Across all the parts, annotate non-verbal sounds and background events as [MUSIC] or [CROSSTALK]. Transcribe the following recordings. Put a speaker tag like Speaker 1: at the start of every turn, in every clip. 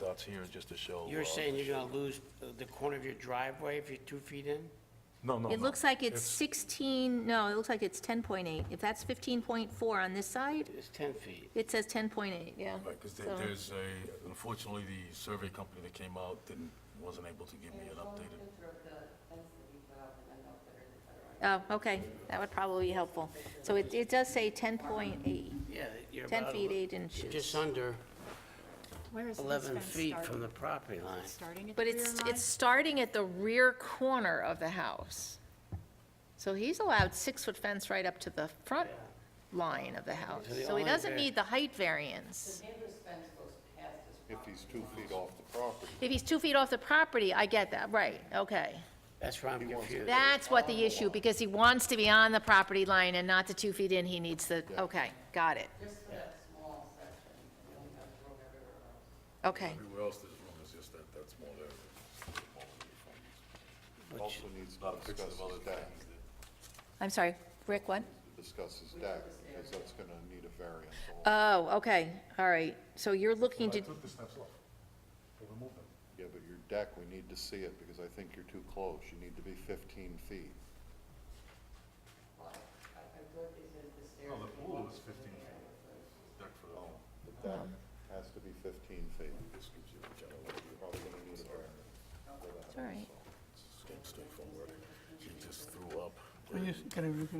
Speaker 1: that's here just to show.
Speaker 2: You're
Speaker 1: uh,
Speaker 2: saying you're gonna lose uh, the corner of your driveway if you're two feet in?
Speaker 1: No, no,
Speaker 3: It
Speaker 1: no.
Speaker 3: looks like it's 16, no, it looks like it's 10.8. If that's 15.4 on this side,
Speaker 2: It's 10 feet.
Speaker 3: it says 10.8, yeah.
Speaker 1: Right, because
Speaker 3: So-
Speaker 1: there's a, unfortunately, the survey company that came out didn't, wasn't able to give me an updated.
Speaker 3: Oh, okay, that would probably be helpful. So it, it does say 10.8,
Speaker 2: Yeah, you're
Speaker 3: 10
Speaker 2: about
Speaker 3: feet,
Speaker 2: ele-
Speaker 3: 8
Speaker 2: you're
Speaker 3: inches.
Speaker 2: Just under
Speaker 4: Where is this
Speaker 2: 11
Speaker 4: fence
Speaker 2: feet
Speaker 4: starting?
Speaker 2: from the property line.
Speaker 4: Starting at the
Speaker 5: But
Speaker 4: rear
Speaker 5: it's,
Speaker 4: line?
Speaker 5: it's starting at the rear corner of the house. So he's allowed six-foot fence right up to the front line of the house.
Speaker 2: So the
Speaker 5: So he
Speaker 2: only
Speaker 5: doesn't
Speaker 2: var-
Speaker 5: need the height variance.
Speaker 6: if he's two feet off the property.
Speaker 5: If he's two feet off the property, I get that, right, okay.
Speaker 2: That's where I'm confused.
Speaker 5: That's what the issue, because he wants to be on the property line and not the two feet in, he needs the, okay, got it. Okay,
Speaker 1: Everywhere else, there's room, it's just that, that's more there.
Speaker 6: Also needs to discuss his deck,
Speaker 5: I'm sorry, Rick, what?
Speaker 6: discuss his deck, because that's gonna need a variance. also.
Speaker 5: Oh, okay, all right, so you're looking to,
Speaker 1: the steps off. They removed them.
Speaker 6: Yeah, but your deck, we need to see it, because I think you're too close, you need to be fifteen feet.
Speaker 1: No, the pool was fifteen feet. Deck for the home.
Speaker 6: The deck has to be fifteen feet. You're probably gonna need a variance.
Speaker 5: it's all right.
Speaker 1: She just threw up.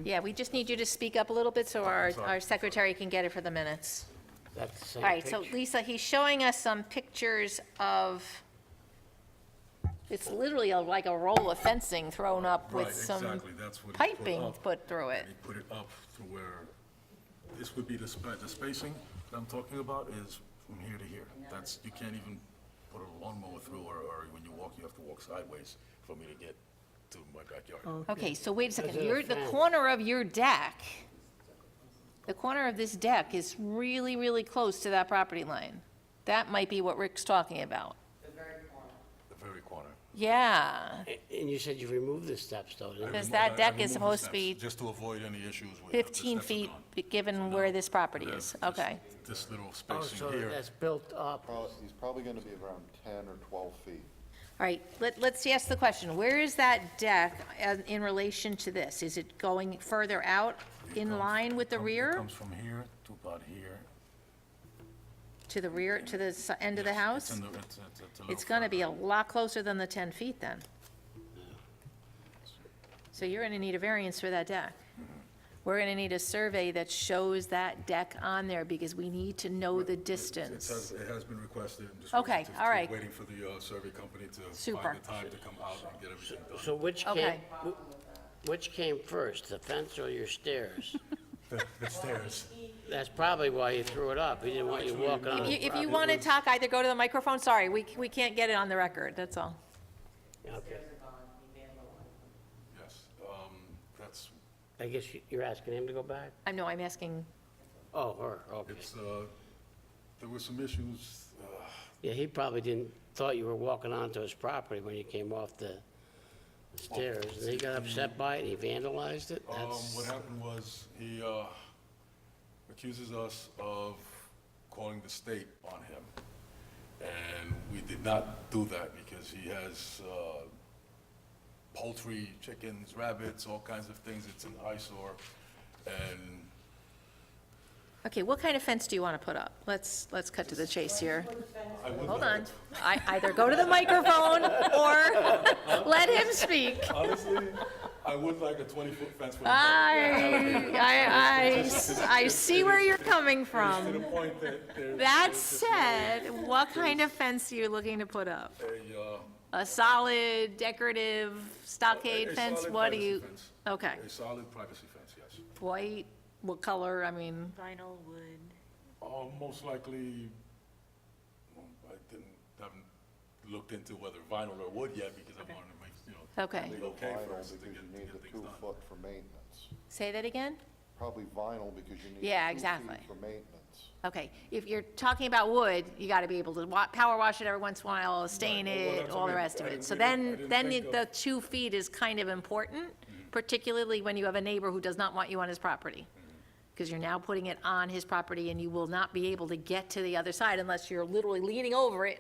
Speaker 5: Yeah, we just need you to speak up a little bit so our, our secretary can get it for the minutes.
Speaker 2: That's the same
Speaker 5: All right, so
Speaker 2: picture.
Speaker 5: Lisa, he's showing us some pictures of, it's literally a- like a roll of fencing thrown up
Speaker 1: Right,
Speaker 5: with some
Speaker 1: exactly, that's what. he put
Speaker 5: piping
Speaker 1: up.
Speaker 5: put through it.
Speaker 1: They put it up to where, this would be the spa, the spacing that I'm talking about is from here to here. That's, you can't even put a lawnmower through, or, or when you walk, you have to walk sideways for me to get to my backyard.
Speaker 5: Okay, so wait a second,
Speaker 2: Is it a
Speaker 5: your, the
Speaker 2: fence?
Speaker 5: corner of your deck, the corner of this deck is really, really close to that property line. That might be what Rick's talking about.
Speaker 1: The very corner.
Speaker 5: Yeah,
Speaker 2: A- And you said you removed the steps, though, didn't you?
Speaker 5: Because
Speaker 1: I remo-
Speaker 5: that
Speaker 1: I- I
Speaker 5: deck is
Speaker 1: removed the
Speaker 5: supposed to
Speaker 1: steps
Speaker 5: be
Speaker 1: Just to avoid any issues with. the
Speaker 5: 15
Speaker 1: steps are
Speaker 5: feet,
Speaker 1: gone.
Speaker 5: given where this property
Speaker 1: Yeah,
Speaker 5: is,
Speaker 1: this-
Speaker 5: okay.
Speaker 1: This little
Speaker 2: Oh,
Speaker 1: spacing
Speaker 2: so
Speaker 1: here,
Speaker 2: that's built up.
Speaker 6: Probably- He's probably gonna be around ten or twelve feet.
Speaker 5: All right, let, let's ask the question, where is that deck as- in relation to this? Is it going further out in
Speaker 1: comes-
Speaker 5: line with the
Speaker 1: come- it
Speaker 5: rear,
Speaker 1: comes from here to about here.
Speaker 5: to the rear, to the s- end of the
Speaker 1: Yes, it's
Speaker 5: house?
Speaker 1: in the- it's- it's- it's a little
Speaker 5: It's gonna be
Speaker 1: further.
Speaker 5: a lot closer than the 10 feet then. So you're gonna need a variance for that deck. We're gonna need a survey that shows that deck on there, because we need to know the
Speaker 1: It has,
Speaker 5: distance.
Speaker 1: it has been requested. I'm just
Speaker 5: Okay,
Speaker 1: waiting to-
Speaker 5: all right.
Speaker 1: Waiting for the uh, survey company to
Speaker 5: Super.
Speaker 1: find the time to come out and get everything done.
Speaker 2: So which came,
Speaker 5: Okay.
Speaker 2: wh- which came first, the fence or your stairs?
Speaker 1: The- The stairs.
Speaker 2: That's probably why you threw it up. He didn't want you walking on
Speaker 5: If
Speaker 2: the
Speaker 5: you, if you
Speaker 2: property.
Speaker 5: wanna talk, either go to the microphone, sorry, we, we can't get it on the record, that's all.
Speaker 2: Okay.
Speaker 1: Yes, um, that's,
Speaker 2: I guess you- you're asking him to go back?
Speaker 5: I know, I'm asking
Speaker 2: Oh, her, okay.
Speaker 1: it's, uh, there were some issues, uh,
Speaker 2: Yeah, he probably didn't, thought you were walking onto his property when you came off the stairs. And he got upset by it, he vandalized it?
Speaker 1: Um, what
Speaker 2: That's,
Speaker 1: happened was, he, uh, accuses us of calling the state on him. And we did not do that because he has, uh, poultry, chickens, rabbits, all kinds of things. It's an eyesore. And
Speaker 5: Okay, what kind of fence do you want to put up? Let's, let's cut to the chase here.
Speaker 1: I would.
Speaker 5: Hold on. I, either go to the microphone or [LAUGHS] let him speak.
Speaker 1: Honestly, I would like a twenty-foot fence with a.
Speaker 5: Ah, I, I, I, I see where you're
Speaker 1: To
Speaker 5: coming
Speaker 1: the
Speaker 5: from.
Speaker 1: point that there's.
Speaker 5: That
Speaker 1: there's just
Speaker 5: said, what kind of fence are you looking to put up?
Speaker 1: A, uh,
Speaker 5: A solid decorative
Speaker 1: A-
Speaker 5: stockade
Speaker 1: a
Speaker 5: fence?
Speaker 1: solid
Speaker 5: What do
Speaker 1: privacy
Speaker 5: you?
Speaker 1: fence.
Speaker 5: Okay,
Speaker 1: a solid privacy fence, yes.
Speaker 5: white, what color? I mean,
Speaker 4: Vinyl wood.
Speaker 1: Uh, most likely, um, I didn't, haven't looked into whether vinyl or wood yet because I wanted to make, you know.
Speaker 5: Okay.
Speaker 1: legal Okay
Speaker 6: Vinyl,
Speaker 1: first to
Speaker 6: because you
Speaker 1: get, to
Speaker 6: need
Speaker 1: get
Speaker 6: the
Speaker 1: things
Speaker 6: two
Speaker 1: done.
Speaker 6: foot for maintenance.
Speaker 5: say that again?
Speaker 6: Probably vinyl, because you need the
Speaker 5: Yeah,
Speaker 6: two
Speaker 5: exactly.
Speaker 6: feet for maintenance.
Speaker 5: Okay, if you're talking about wood, you gotta be able to wa- power wash it every once in a while, stain
Speaker 1: Right, well,
Speaker 5: it,
Speaker 1: that's
Speaker 5: all the
Speaker 1: what I-
Speaker 5: rest of
Speaker 1: I
Speaker 5: it.
Speaker 1: didn't
Speaker 5: So
Speaker 1: even- I
Speaker 5: then,
Speaker 1: didn't
Speaker 5: then
Speaker 1: think
Speaker 5: it-
Speaker 1: of- Mm-hmm.
Speaker 5: the two feet is kind of important, particularly when you have a neighbor who does not want you on his property.
Speaker 1: Mm-hmm.
Speaker 5: Because you're now putting it on his property and you will not be able to get to the other side unless you're literally leaning over it